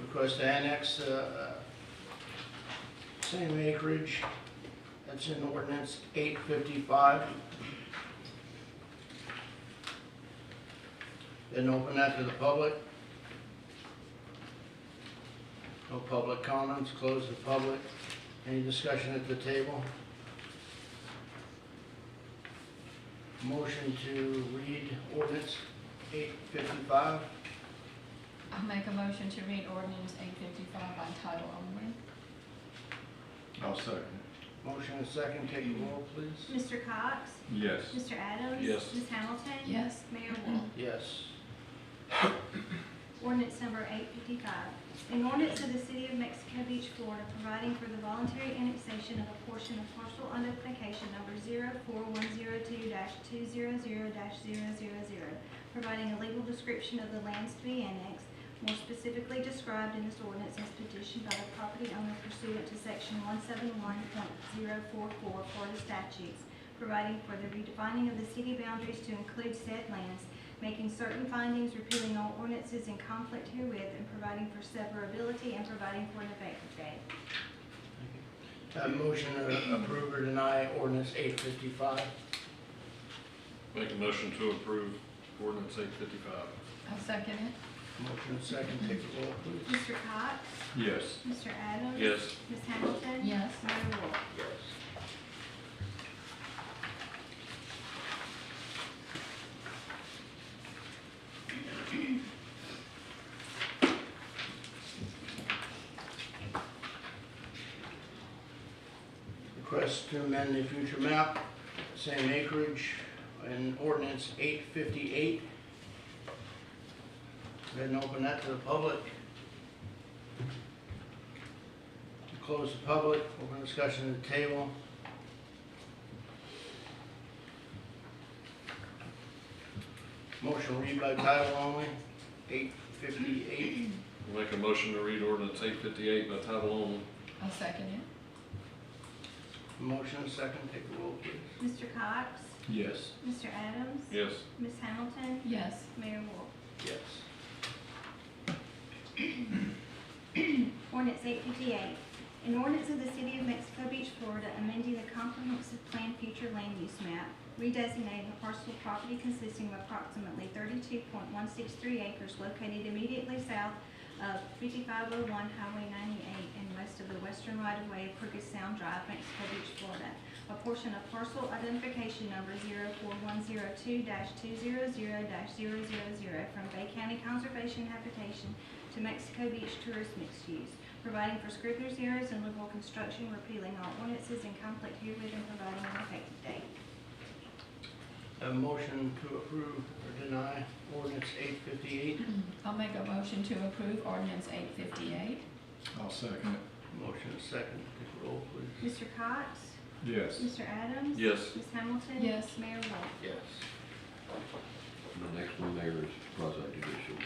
request to annex, uh, uh, same acreage, that's in ordinance eight fifty-five. Didn't open that to the public. No public comments, close the public. Any discussion at the table? Motion to read ordinance eight fifty-five. I'll make a motion to read ordinance eight fifty-five by title only. I'll second. Motion and second, take a roll, please. Mr. Cox? Yes. Mr. Adams? Yes. Ms. Hamilton? Yes. Mayor Wolf? Yes. Ordinance number eight fifty-five. An ordinance of the City of Mexico Beach, Florida, providing for the voluntary annexation of a portion of parcel identification number zero four one zero two two zero zero 0 providing a legal description of the lands to be annexed, more specifically described in this ordinance as petitioned by the property owner pursuant to section one seven one point zero four four Florida statutes, providing for the redefining of the city boundaries to include said lands, making certain findings, repealing all ordinances in conflict herewith, and providing for severability and providing for an effective date. Have motion to approve or deny ordinance eight fifty-five. Make a motion to approve ordinance eight fifty-five. I'll second it. Motion and second, take a roll, please. Mr. Cox? Yes. Mr. Adams? Yes. Ms. Hamilton? Yes. Mayor Wolf? Yes. Request to amend the future map, same acreage, in ordinance eight fifty-eight. Go ahead and open that to the public. Close the public, open discussion at the table. Motion read by title only, eight fifty-eight. Make a motion to read ordinance eight fifty-eight by title only. I'll second it. Motion second, take a roll, please. Mr. Cox? Yes. Mr. Adams? Yes. Ms. Hamilton? Yes. Mayor Wolf? Yes. Ordinance eight fifty-eight. An ordinance of the City of Mexico Beach, Florida, amending the comprehensive plan future land use map, redesignating a parcel of property consisting of approximately thirty-two point one six three acres located immediately south of fifty-five oh one Highway ninety-eight and west of the western right-of-way of Crooked Sound Drive, Mexico Beach, Florida. A portion of parcel identification number zero four one zero two two zero zero 0 from Bay County Conservation Habitation to Mexico Beach tourist mixed use, providing for scrivener's errors and liberal construction, repealing all ordinances in conflict herewith and providing an effective date. A motion to approve or deny ordinance eight fifty-eight. I'll make a motion to approve ordinance eight fifty-eight. I'll second it. Motion second, take a roll, please. Mr. Cox? Yes. Mr. Adams? Yes. Ms. Hamilton? Yes. Mayor Wolf? Yes. The next one there is quasi judicial.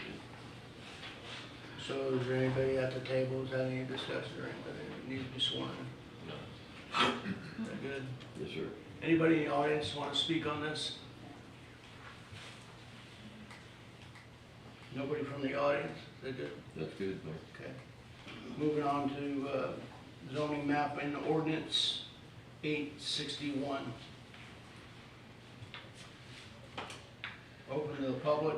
So is there anybody at the table, is that any discussion or anybody that needs to be sworn? No. Is that good? Yes, sir. Anybody in the audience want to speak on this? Nobody from the audience? They did, That's good, Mayor. okay. Moving on to uh, zoning map and ordinance eight sixty-one. Open to the public.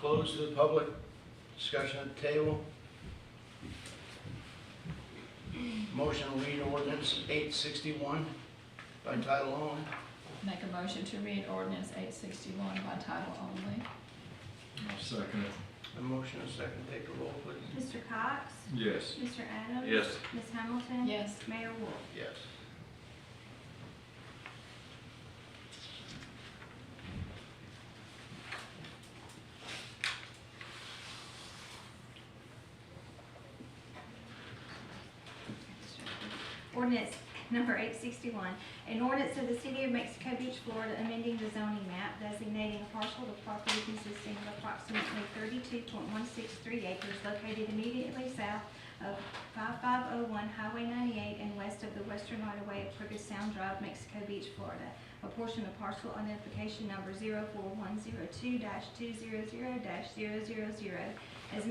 Close to the public. Discussion at the table. Motion to read ordinance eight sixty-one by title only. Make a motion to read ordinance eight sixty-one by title only. I'll second it. A motion and a second, take the roll, please. Mr. Cox? Yes. Mr. Adams? Yes. Ms. Hamilton? Yes. Mayor Wolf? Yes. Ordinance number eight sixty-one, an ordinance of the City of Mexico Beach, Florida, amending the zoning map designating a parcel of property consisting of approximately thirty-two point one six three acres located immediately south of oh five-five-oh-one Highway ninety-eight and west of the western right-of-way of Crooked Sound Drive, Mexico Beach, Florida. a portion of parcel identification number 4102 200 0 as